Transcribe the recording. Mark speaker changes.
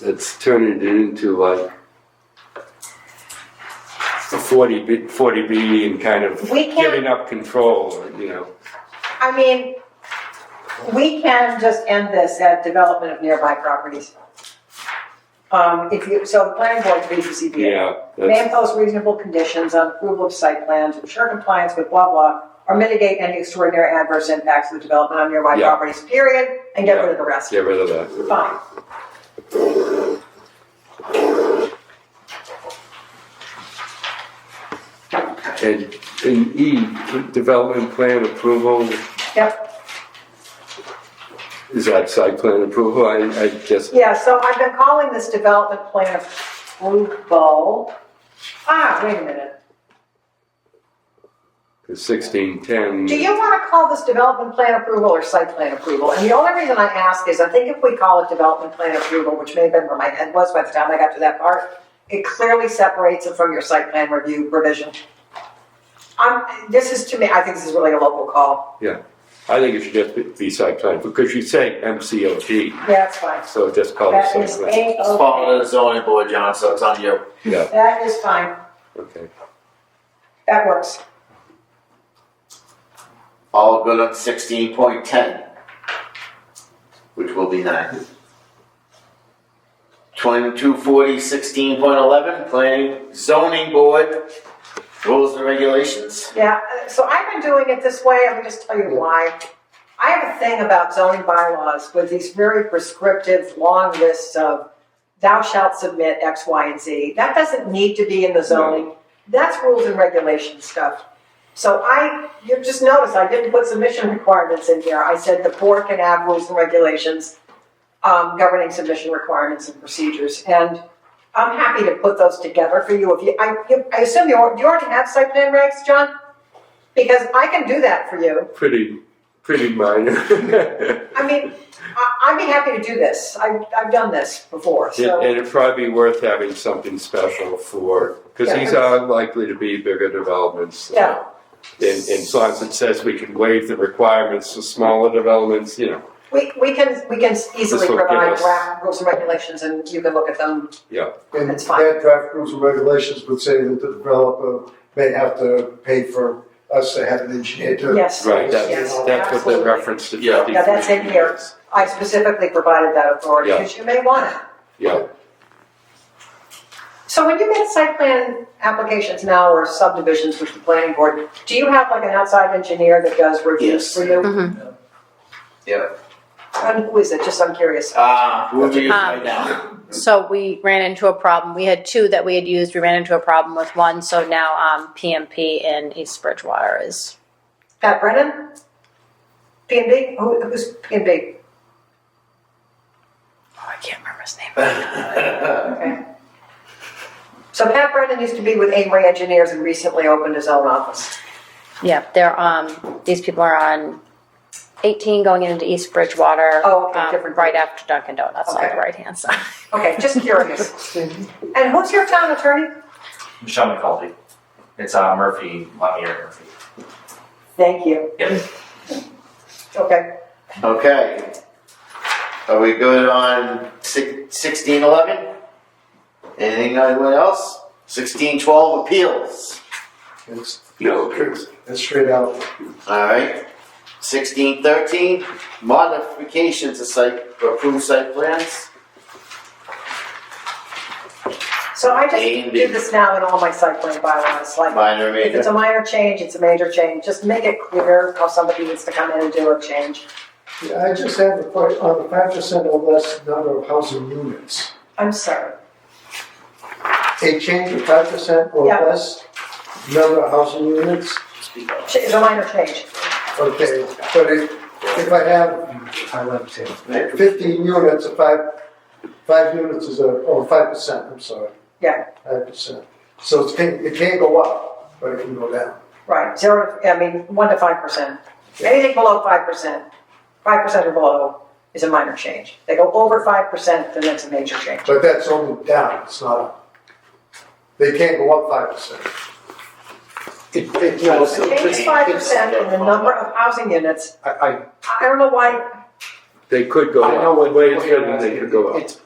Speaker 1: that's turning it into like a 40 B, 40 B and kind of
Speaker 2: We can't-
Speaker 1: giving up control, you know.
Speaker 2: I mean, we can just end this at development of nearby properties. Um, if you, so the planning board reads the ZBA.
Speaker 1: Yeah,
Speaker 2: May
Speaker 1: that's,
Speaker 2: impose reasonable conditions on approval of site plans, ensure compliance with blah blah, or mitigate any extraordinary adverse impacts of the development on nearby
Speaker 1: Yeah.
Speaker 2: properties, period, and get rid of the rest.
Speaker 1: get rid of that.
Speaker 2: Fine.
Speaker 1: And, and E, development plan approval,
Speaker 2: Yep,
Speaker 1: is that site plan approval? I, I guess,
Speaker 2: yeah, so I've been calling this development plan approval. Ah, wait a minute.
Speaker 1: 1610.
Speaker 2: Do you want to call this development plan approval or site plan approval? And the only reason I ask is I think if we call it development plan approval, which may have been where my head was by the time I got to that part, it clearly separates it from your site plan review revision. Um, this is to me, I think this is really a local call.
Speaker 1: I think it should just be- be site plan, because you say MCOT,
Speaker 2: Yeah, it's fine.
Speaker 1: so just call it
Speaker 2: That
Speaker 1: site
Speaker 2: is
Speaker 1: plan.
Speaker 2: A
Speaker 3: It's following
Speaker 2: okay.
Speaker 3: the zoning board, John, so it's on you.
Speaker 1: Yeah,
Speaker 2: That is fine.
Speaker 1: okay.
Speaker 2: That works.
Speaker 3: All good on sixteen point ten, which will be nine. Twenty-two forty sixteen point eleven, planning zoning board, rules and regulations.
Speaker 2: Yeah, uh, so I've been doing it this way, let me just tell you why. I have a thing about zoning bylaws with these very prescriptive, long lists of thou shalt submit X, Y, and Z. That doesn't need to be in the zoning. That's rules and regulation stuff. So I, you just noticed, I didn't put submission requirements in here. I said the board can have rules and regulations um, governing submission requirements and procedures. And I'm happy to put those together for you if you, I, you- I assume you, al- you already have site plan regs, John? Because I can do that for you.
Speaker 1: Pretty, pretty minor.
Speaker 2: I mean, I, I'd be happy to do this. I, I've done this before,
Speaker 1: And
Speaker 2: so.
Speaker 1: and it'd probably be worth having something special for, because these are likely to be bigger developments.
Speaker 2: Yeah.
Speaker 1: And, and so as it says, we can waive the requirements for smaller developments, you know,
Speaker 2: We, we can, we can easily
Speaker 1: This will give
Speaker 2: provide
Speaker 1: us-
Speaker 2: draft rules and regulations and you can look at them.
Speaker 4: And
Speaker 2: That's fine.
Speaker 4: that draft rules and regulations would say that the developer may have to pay for us to have an engineer to.
Speaker 2: Yes.
Speaker 1: right, that's,
Speaker 2: Yes,
Speaker 1: that's what the
Speaker 2: absolutely.
Speaker 1: reference to
Speaker 3: Yeah.
Speaker 1: fifty-three.
Speaker 2: Yeah, that's in here. I specifically provided that authority
Speaker 1: Yeah.
Speaker 2: because you may want it.
Speaker 1: Yeah,
Speaker 2: So when you get site plan applications now or subdivisions with the planning board, do you have like an outside engineer that does reviews
Speaker 3: Yes.
Speaker 2: for you?
Speaker 3: Yeah.
Speaker 2: And who is it? Just I'm curious.
Speaker 3: Uh, who do you
Speaker 5: Ah.
Speaker 3: right now?
Speaker 5: So we ran into a problem. We had two that we had used. We ran into a problem with one. So now um, PMP in East Bridgewater is
Speaker 2: Pat Brennan? P and B? Who, who's P and B?
Speaker 5: oh, I can't remember his name.
Speaker 2: Okay. So Pat Brennan used to be with Amory Engineers and recently opened his own office.
Speaker 5: Yeah, they're um these people are on 18 going into East Bridgewater.
Speaker 2: Oh, okay,
Speaker 5: um,
Speaker 2: different-
Speaker 5: right after Dunkin' Donuts on
Speaker 2: Okay.
Speaker 5: the right hand side.
Speaker 2: Okay, just curious. And who's your town attorney?
Speaker 6: Michelle McCulty. It's uh, Murphy, Lemire Murphy.
Speaker 2: Thank you.
Speaker 6: Yep.
Speaker 2: Okay,
Speaker 3: Okay. Are we good on sixteen eleven? Anything, anyone else? Sixteen twelve appeals.
Speaker 4: It's,
Speaker 1: no, Chris.
Speaker 4: it's straight out.
Speaker 3: Alright, sixteen thirteen, modifications to site, approved site plans.
Speaker 2: so I just
Speaker 3: A and
Speaker 2: do
Speaker 3: B.
Speaker 2: this now in all my site plan bylaws, like
Speaker 3: Minor
Speaker 2: If it's
Speaker 3: major.
Speaker 2: a minor change, it's a major change, just make it clear how somebody needs to come in and do a change.
Speaker 4: Yeah, I just have a question on the five percent or less number of housing units.
Speaker 2: I'm sorry,
Speaker 4: A change of five percent or
Speaker 2: Yeah.
Speaker 4: less number of housing units,
Speaker 2: Ch- it's a minor change.
Speaker 4: okay, but if, if I have, I left him, fifteen units, a five, five units is a, oh, five percent, I'm sorry.
Speaker 2: Yeah.
Speaker 4: Five percent, so it can, it can go up, but it can go down.
Speaker 2: Right, zero, I mean, one to five percent. Anything below five percent, five percent or below is a minor change. They go over five percent, then it's a major change.
Speaker 4: But that's only down, it's not up. They can't go up five percent. It, it, no,
Speaker 2: The change is five percent and the number of housing units,
Speaker 4: I, I
Speaker 2: I I don't know why,
Speaker 1: They could go
Speaker 4: I know
Speaker 1: up,
Speaker 4: what-
Speaker 1: way
Speaker 4: what
Speaker 1: it's
Speaker 4: you're
Speaker 1: written, they
Speaker 4: asking.
Speaker 1: could go up.
Speaker 4: It's-